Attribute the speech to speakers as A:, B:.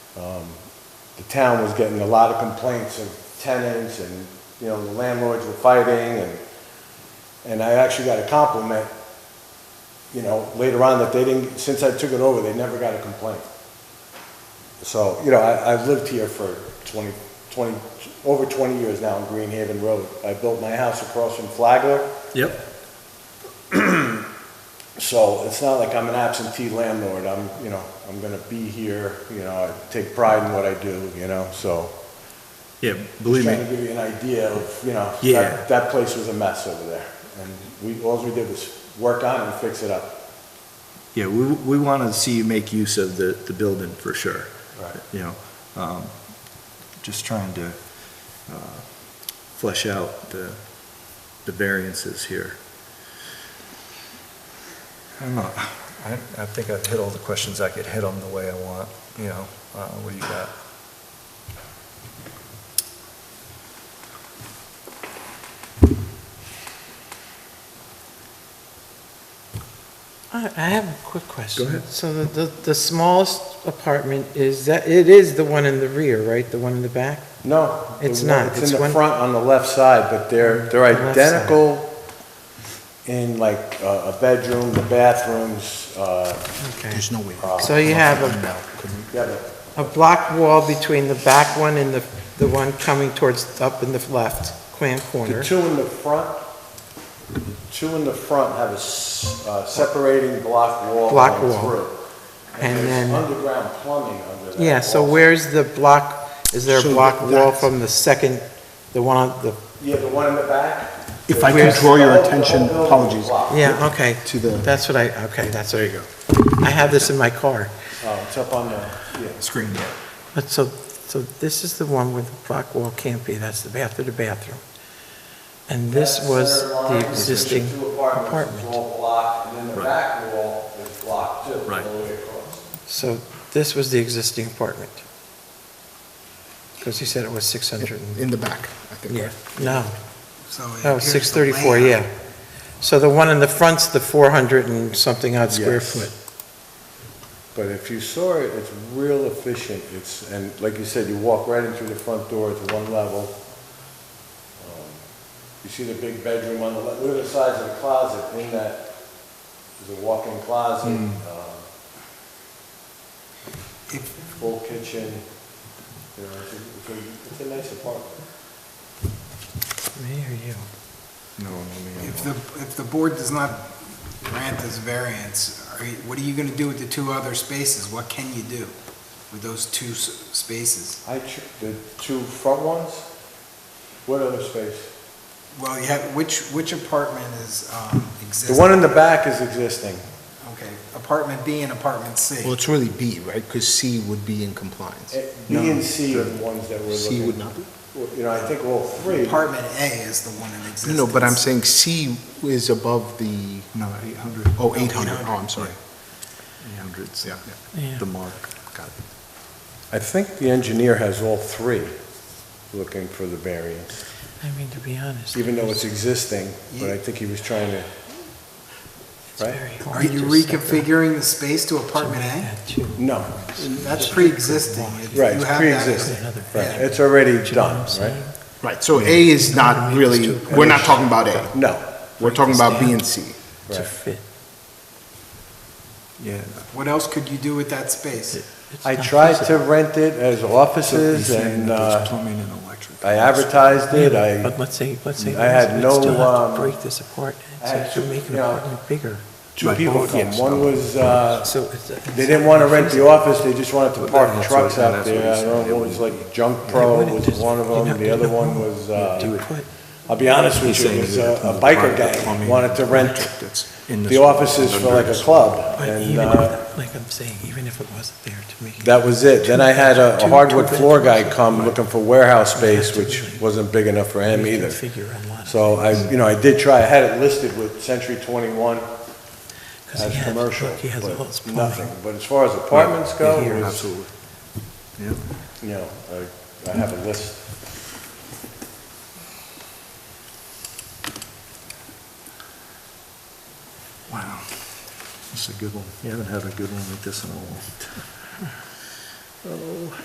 A: the town was getting a lot of complaints of tenants and, you know, the landlords were fighting and, and I actually got a compliment, you know, later on that they didn't, since I took it over, they never got a complaint. So, you know, I, I've lived here for 20, 20, over 20 years now on Greenhaven Road. I built my house across from Flagler,
B: Yep.
A: so it's not like I'm an absentee landlord. I'm, you know, I'm gonna be here, you know, I take pride in what I do, you know, so.
B: Yeah, believe
A: Trying
B: me.
A: to give you an idea of, you know,
B: Yeah.
A: that, that place was a mess over there. And we, all we did was work on it and fix it up.
B: Yeah, we, we want to see you make use of the, the building for sure.
A: Right.
B: You know, um, just trying to, uh, flesh out the, the variances here.
C: I don't know. I, I think I've hit all the questions I could hit on the way I want, you know, uh, what do you got?
D: I I have a quick question.
B: Go ahead.
D: So the, the, the smallest apartment is that, it is the one in the rear, right? The one in the back?
A: No. the
D: It's
A: one-
D: not.
A: It's
D: It's
A: in the
D: one-
A: front on the left side, but they're, they're
D: Left side.
A: identical in like uh, a a bedroom, the bathrooms, uh,
D: Okay.
E: There's no way.
C: Um,
D: So you have a,
A: yeah, but
D: a block wall between the back one and the, the one coming towards, up in the left, Quan corner.
A: The two in the front, the two in the front have a s- uh, separating block wall
D: Block
A: going
D: wall.
A: through.
D: And
A: there's
D: then-
A: underground plumbing under that
D: Yeah, so
A: wall.
D: where's the block, is there a
E: So
D: block wall
E: that's-
D: from the second, the one, on the,
A: Yeah, the one in the back?
E: If I could
D: Where's-
E: draw your
C: Oh,
A: The whole- the whole
E: attention,
A: building is
E: apologies.
A: blocked.
D: yeah, okay.
E: To the
D: That's what I, okay, that's, there you go. I have this in my car.
A: Oh, it's up on the, yeah.
E: screen, yeah.
D: But so, so this is the one where the block wall can't be, that's the bathroom, the bathroom. And this
A: That
D: was
A: center line
D: the
A: between
D: existing
A: two apartments is
D: apartment.
A: all block, and then the
B: Right.
A: back wall is blocked too, all
B: Right.
A: the way across.
D: So this was the existing apartment. Because he said it was 600 and,
E: in the back, I think.
D: yeah,
E: right?
D: no,
E: So it
D: no,
E: appears the
D: 634, yeah. So the one in the front's the 400 and something odd square
A: Yes.
D: foot.
A: But if you saw it, it's real efficient, it's, and like you said, you walk right in through the front door, it's one level. Um, You see the big bedroom on the, left. look at the size of the closet, in that, there's a walk-in closet,
D: Hmm.
A: um, full kitchen, you know, it's a- it's a- it's a nice apartment.
D: Me or you?
B: No, no,
F: If the, if the board does not grant this variance, are you, what are you gonna do with the two other spaces? What can you do with those two s- spaces?
A: I, tr- the two front ones, what other space?
F: Well, you have, which, which apartment is, um,
A: The
F: existing?
A: one in the back is existing.
F: Okay, apartment B and apartment C.
E: Well, it's really B, right? Because C would be in compliance.
A: Eh, B and C are the ones that we're looking.
E: C would not be?
A: Well, You know, I think all three.
F: Apartment A is the one in existence.
E: No, but I'm saying C is above the,
C: No, 800.
E: oh, 800, oh, I'm sorry.
B: Hundreds,
E: Yeah.
D: Yeah.
B: the mark.
E: Got it.
A: I think the engineer has all three looking for the variance,
D: I mean, to be honest.
A: even though it's existing, but I think he was trying to,
D: it's
A: right?
D: very hard
F: Are
D: to
F: you
D: set that-
F: reconfiguring the space to
D: to
F: apartment
D: make
F: A?
D: that too.
A: no,
F: That's pre-existing. If
A: right,
F: you
A: it's
F: have that-
A: pre-existing,
D: Another
A: right,
F: Yeah.
A: it's already
D: Do you know what I'm
A: done, right?
D: saying?
E: Right, so A is not really, we're not talking about A.
A: No,
E: We're talking about B and C.
D: To
A: Right.
D: fit.
B: Yeah.
F: What else could you do with that space?
D: It's
A: I
D: not
A: tried to
D: feasible.
A: rent it as
B: So he's
A: offices
B: saying
A: and,
B: that there's
A: uh,
B: plumbing and electric.
A: I advertised it, I
D: But let's say, let's say.
A: I had
D: let's
A: no,
D: still have
A: um,
D: to break this apart,
A: I
D: and
A: had
D: so
A: two-
D: you make an
A: you know,
D: apartment bigger,
A: two people came, one was, uh,
D: so it's. a-
A: they didn't wanna rent the office, they just wanted to park
B: that's
A: trucks
B: what-
A: out
B: that's what he
A: there, I
B: said,
A: don't
B: they
A: know, it was
B: wouldn't-
A: like Junk
D: They
A: Pro
D: wouldn't
A: was
D: just-
A: one of
D: you're
A: them,
D: not
A: the other
D: gonna
A: one
D: put-
A: was, uh,
D: put-
A: I'll be honest
B: He's
A: with you,
B: saying
A: it was
B: that
A: a
B: it's
A: a
B: private
A: biker gang
B: plumbing
A: wanted to rent
B: electric that's in this
A: the offices for like a
B: building.
A: club,
D: But
A: and
D: even
A: uh,
D: if, like I'm saying, even if it wasn't there to make. it-
A: that was it. Then I had a a
D: Two-
A: hardwood
D: two
A: floor guy
D: bedrooms.
A: come looking for warehouse space, which wasn't big enough for him
D: You
A: either.
D: can figure a lot of
A: So I,
D: things.
A: you know, I did try, I had it listed with Century 21
D: 'Cause he
A: as
D: has-
A: commercial,
D: look, He has all this
A: but
D: plumbing.
A: nothing. But as far as apartments go,
D: Here.
A: it was,
B: Absolutely. Yeah.
A: you know, I- I have a list.
B: Wow. That's a good one. You haven't had a good one like this in a while.